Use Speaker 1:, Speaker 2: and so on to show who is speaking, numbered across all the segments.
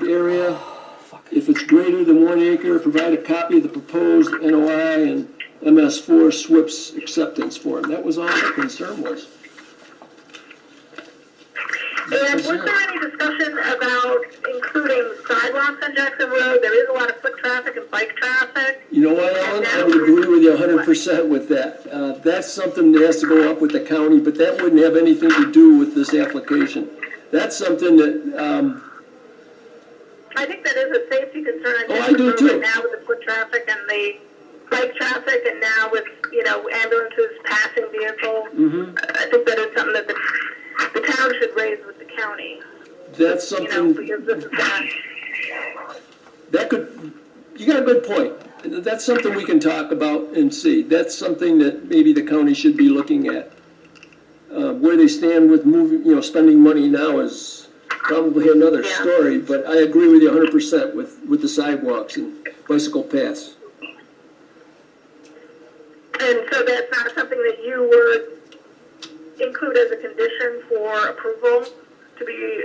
Speaker 1: area.
Speaker 2: Oh,
Speaker 1: If it's greater than one acre, provide a copy of the proposed NOI and MS4 SWIP's acceptance form. That was all the concern was.
Speaker 2: And was there any discussion about including sidewalks on Jackson Road? There is a lot of foot traffic and bike traffic.
Speaker 1: You know what, Alan, I would agree with you hundred percent with that. Uh, that's something that has to go up with the county, but that wouldn't have anything to do with this application. That's something that, um,
Speaker 2: I think that is a safety concern. on
Speaker 1: Oh, I
Speaker 2: Jackson
Speaker 1: do
Speaker 2: Road
Speaker 1: too.
Speaker 2: right Now with the foot traffic and the bike traffic and now with, you know, ambulances passing vehicles.
Speaker 1: Mm-hmm.
Speaker 2: I think that is something that the, the town should raise with the county,
Speaker 1: that's
Speaker 2: you know,
Speaker 1: something,
Speaker 2: because this is not,
Speaker 1: that could, you got a good point. That's something we can talk about and see. That's something that maybe the county should be looking at. Uh, where they stand with moving, you know, spending money now is probably another
Speaker 2: Yeah.
Speaker 1: story, but I agree with you hundred percent with, with the sidewalks and bicycle paths.
Speaker 2: and so that's not something that you would include as a condition for approval to be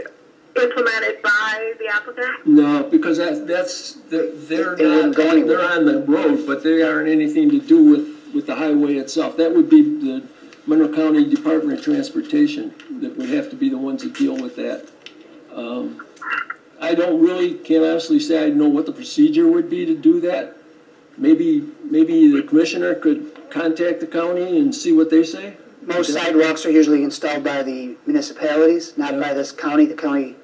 Speaker 2: implemented by the applicant?
Speaker 1: No, because that, that's, they're, they're
Speaker 3: It
Speaker 1: not,
Speaker 3: wouldn't go anywhere.
Speaker 1: they're on the road, but they aren't anything to do with, with the highway itself. That would be the Monroe County Department of Transportation that would have to be the ones that deal with that. Um, I don't really, can't honestly say I know what the procedure would be to do that. Maybe, maybe the commissioner could contact the county and see what they say?
Speaker 3: Most sidewalks are usually installed by the municipalities, not by this county. The county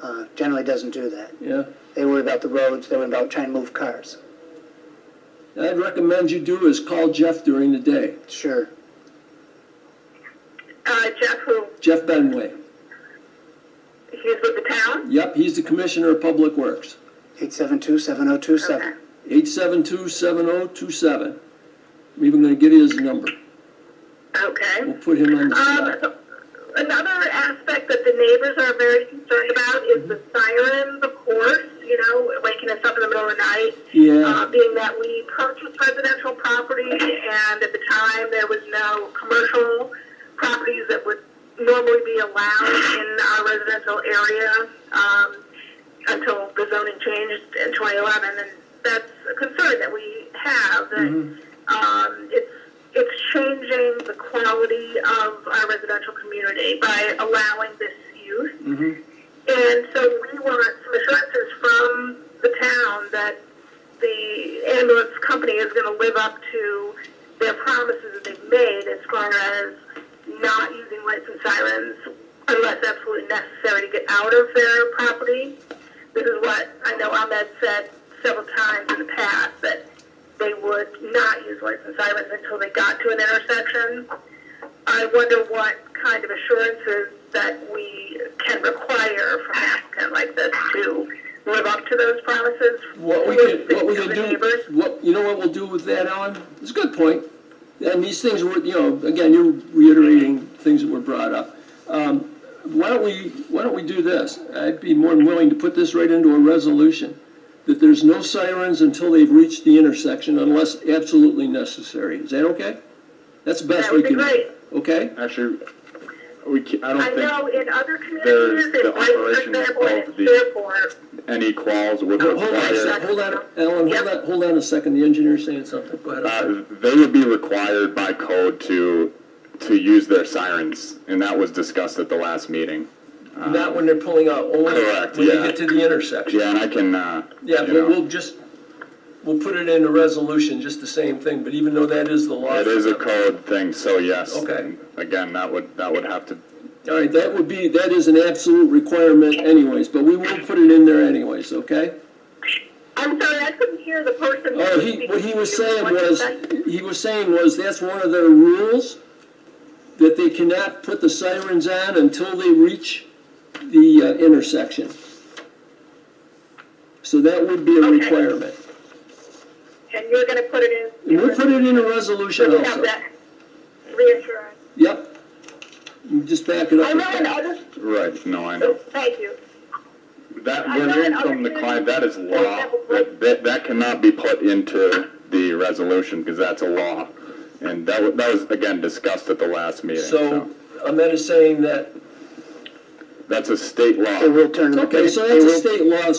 Speaker 3: uh, generally doesn't do that.
Speaker 1: Yeah.
Speaker 3: They worry about the roads, they worry about trying to move cars.
Speaker 1: I'd recommend you do is call Jeff during the day,
Speaker 3: Sure.
Speaker 2: Uh, Jeff, who,
Speaker 1: Jeff Benway.
Speaker 2: he's with the town?
Speaker 1: Yep, he's the Commissioner of Public Works.
Speaker 3: 872-7027.
Speaker 1: Eight seven two seven oh two seven. I'm even gonna give you his number.
Speaker 2: Okay.
Speaker 1: We'll put him on the
Speaker 2: Um,
Speaker 1: spot.
Speaker 2: another aspect that the neighbors are very concerned about is the sirens, of course, you know, waking us up in the middle of the night. Uh,
Speaker 1: Yeah,
Speaker 2: being that we purchased residential property and at the time there was no commercial properties that would normally be allowed in our residential area, um, until the zoning changed in 2011, and that's a concern that we have, that, um, it's, it's changing the quality of our residential community by allowing this use. And so we want some assurances from the town that the ambulance company is going to live up to their promises that they've made as far as not using lights and sirens unless absolutely necessary to get out of their property. This is what I know Ahmed said several times in the past, that they would not use lights and sirens until they got to an intersection. I wonder what kind of assurances that we can require from an applicant like this to live up to those promises.
Speaker 1: what we
Speaker 2: with
Speaker 1: could, what we
Speaker 2: the
Speaker 1: could
Speaker 2: neighbors.
Speaker 1: do, what, you know what we'll do with that, Alan? It's a good point. And these things were, you know, again, you're reiterating things that were brought up. Um, why don't we, why don't we do this? I'd be more than willing to put this right into a resolution. That there's no sirens until they've reached the intersection unless absolutely necessary. Is that okay? That's the best
Speaker 2: That
Speaker 1: we
Speaker 2: would be
Speaker 1: can do,
Speaker 2: great.
Speaker 1: okay?
Speaker 4: Actually, we ca I
Speaker 2: I know
Speaker 4: don't
Speaker 2: in other communities,
Speaker 4: the
Speaker 2: in like, for
Speaker 4: operation
Speaker 2: example,
Speaker 4: of
Speaker 2: in
Speaker 4: the-
Speaker 2: Fairport,
Speaker 4: think any quals would
Speaker 1: Hold on a
Speaker 4: require,
Speaker 1: sec, hold on, Alan, hold
Speaker 2: Yep.
Speaker 1: on, hold on a second, the engineer's saying something, go ahead. I'm sorry.
Speaker 4: uh, they would be required by code to, to use their sirens, and that was discussed at the last meeting.
Speaker 1: Not when they're pulling out, only
Speaker 4: Uh, Correct,
Speaker 1: when you
Speaker 4: yeah.
Speaker 1: get to the intersection.
Speaker 4: Yeah, and I can, uh,
Speaker 1: Yeah,
Speaker 4: you
Speaker 1: but
Speaker 4: know,
Speaker 1: we'll just, we'll put it in a resolution, just the same thing, but even though that is the law.
Speaker 4: it is a code thing, so yes.
Speaker 1: Okay.
Speaker 4: Again, that would, that would have to,
Speaker 1: All right, that would be, that is an absolute requirement anyways, but we will put it in there anyways, okay?
Speaker 2: I'm sorry, I couldn't hear the person. who
Speaker 1: Oh,
Speaker 2: was
Speaker 1: he,
Speaker 2: speaking.
Speaker 1: what he was saying
Speaker 2: What did
Speaker 1: was,
Speaker 2: that-
Speaker 1: he was saying was, that's one of their rules, that they cannot put the sirens on until they reach the uh, intersection. So that would be a
Speaker 2: Okay.
Speaker 1: requirement.
Speaker 2: And you're gonna put it in.
Speaker 1: And we'll put it in a resolution
Speaker 2: We have
Speaker 1: also.
Speaker 2: that reassurance.
Speaker 1: Yep. You Just back it
Speaker 2: I
Speaker 1: up. with
Speaker 2: know in
Speaker 1: that.
Speaker 2: other,
Speaker 4: right, no, I
Speaker 2: oh,
Speaker 4: know.
Speaker 2: thank you.
Speaker 4: That,
Speaker 2: I
Speaker 4: we're
Speaker 2: know
Speaker 4: hearing
Speaker 2: in
Speaker 4: from
Speaker 2: other
Speaker 4: the client, that is
Speaker 2: communities,
Speaker 4: law.
Speaker 2: for example,
Speaker 4: That, that, that cannot be put into the resolution, because that's a law. And that, wa- that was, again, discussed at the last meeting,
Speaker 1: So Ahmed is saying that
Speaker 4: That's a state law.
Speaker 3: They will turn them.
Speaker 1: Okay, so
Speaker 3: they
Speaker 1: that's a
Speaker 3: will-
Speaker 1: state law,